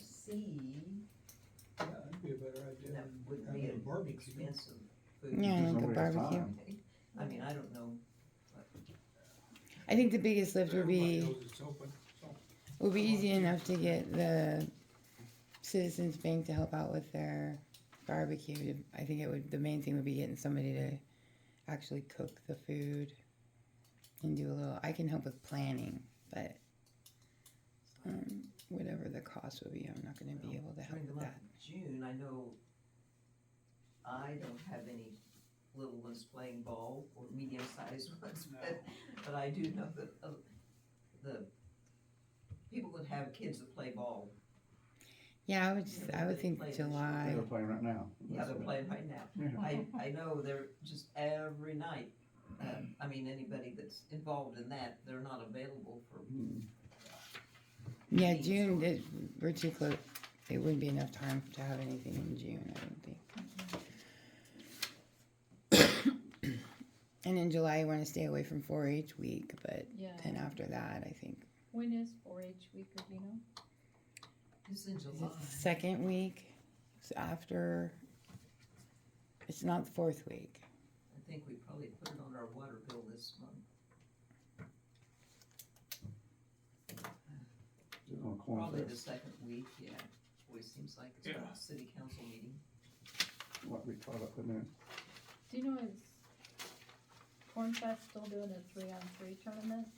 see Yeah, that'd be a better idea that than would be having a an barbecue. expensive food. Yeah, like a There's no way of barbecue. time. I mean, I don't know, I think the biggest lift would Everybody be knows it's open, so. would be easy enough to get the Citizens Bank to help out with their barbecue. I think it would the main thing would be getting somebody to actually cook the food and do a little. I can help with planning, but um, whatever the cost would be, I'm not going to be able to help during the with month that. of June, I know I don't have any little ones playing ball or medium-sized ones, but, but I do know that, uh, the people that have kids that play ball, Yeah, I would. Just, I would think July. They're playing right now. yeah, they're playing right now. Yeah. I, I know they're just every night, uh, I mean, anybody that's involved in that, they're not available for, Mm. Yeah, June. It, we're too close. It wouldn't be enough time to have anything in June. I don't think. and in July, you want to stay away from 4-H week, but Yeah. then after that, I think When is 4-H week? Or do you know? it's in is July. it the second week. It's after. It's not the fourth week. I think we probably put it on our water bill this month, It's on a corn probably fest. the second week, yeah. Always seems like it's Yeah. a city council meeting. What we caught up in there. Do you know is Corn Fest still doing a three-on-three tournament?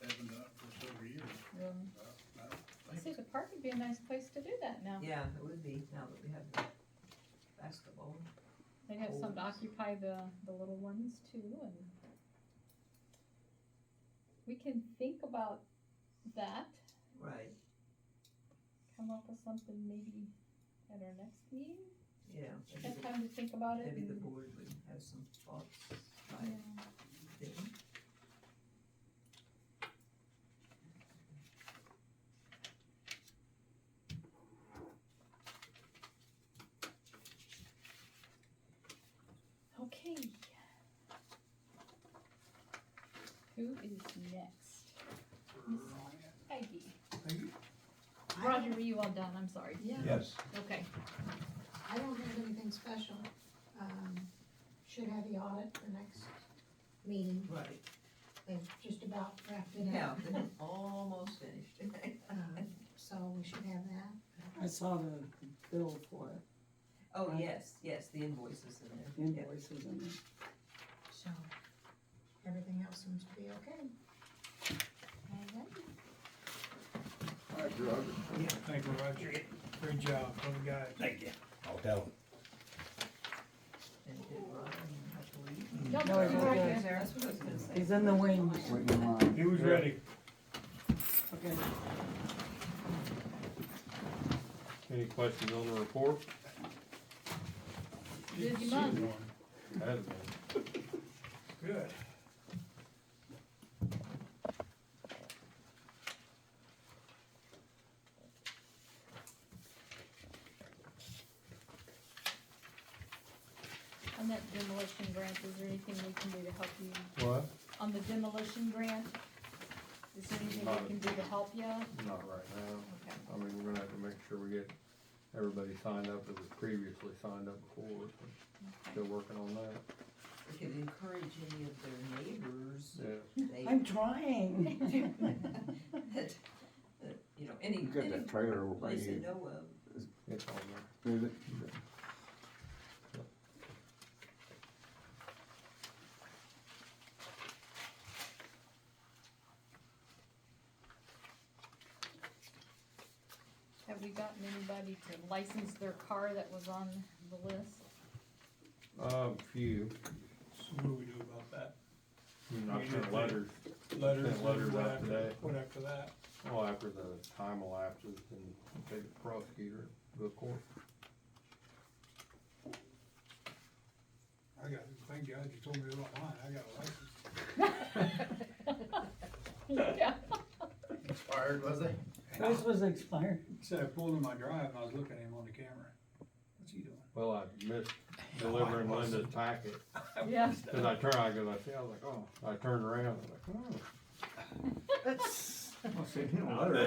haven't done it for several years. Really? I- I I think see the park would be a nice place to do that now. Yeah, it would be, now that we have the basketball. They'd have something to Holes. occupy the, the little ones too and we can think about that, Right, come up with something maybe at our next meeting. yeah. Maybe Have the- time to think about it. Maybe the and- board would have some thoughts by Yeah. then. Okay. Who is next? Miss Peggy. Peggy? Roger, were you all done? I'm sorry. Yeah, Yes. Okay. I don't have anything special. Um, should have the audit for next meeting. Right, They've just about wrapped it yeah, up. they're almost finished. Um, So we should have that. I saw the bill for it, Oh, yes, yes, the invoices in there. yeah. invoices and So everything else seems to be okay. All right. All right, Roger. Thank you, Roger. Great job, little guy. Thank you. I'll tell him. And did Ryan have to leave? Y'all No, do you're right good. there. That's what I was gonna say. he's in the wings. Waiting in line. He was ready. Okay. Any questions on the report? Busy month. Had been. Good. On that demolition grant, is there anything we can do to help you? What? On the demolition grant, is there anything we can do to help you? Not right now. Okay. I mean, we're gonna have to make sure we get everybody signed up that was previously signed up before. so Still working on that, We could encourage any of their neighbors, yeah. they, I'm trying. that, that, you know, any, You got any that trailer over by place they you, know of. It's on there. is it? Have we gotten anybody to license their car that was on the list? Um, few, So what do we do about that? not sent letters, Letters? Send letters what out today. What after that? well, after the time elapses and take the prosecutor to the court. I got, thank God you told me about mine, I got a license. Yeah. Inspired, was they? Yours was expired. Said I pulled in my drive and I was looking at him on the camera. What's he doing? Well, I missed delivering Linda's packet, Yeah. cause I turned, I go, I see, I hmm. was like, oh, I turned around, I was like, oh. I'll send him a letter.